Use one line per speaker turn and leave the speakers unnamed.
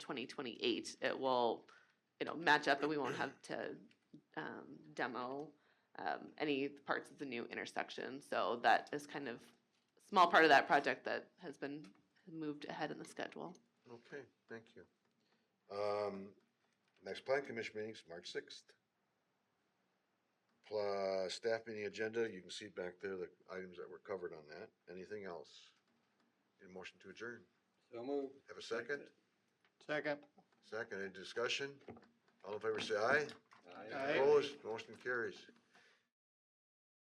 twenty twenty-eight, it will, you know, match up and we won't have to, um, demo, um, any parts of the new intersection. So that is kind of a small part of that project that has been moved ahead in the schedule.
Okay, thank you. Um, next plan commission meeting's March sixth. Pla, staff meeting agenda, you can see back there the items that were covered on that. Anything else? Need a motion to adjourn.
So moved.
Have a second?
Second.
Second, any discussion? All in favor say aye.
Aye.
Aye.
Opposed, motion carries.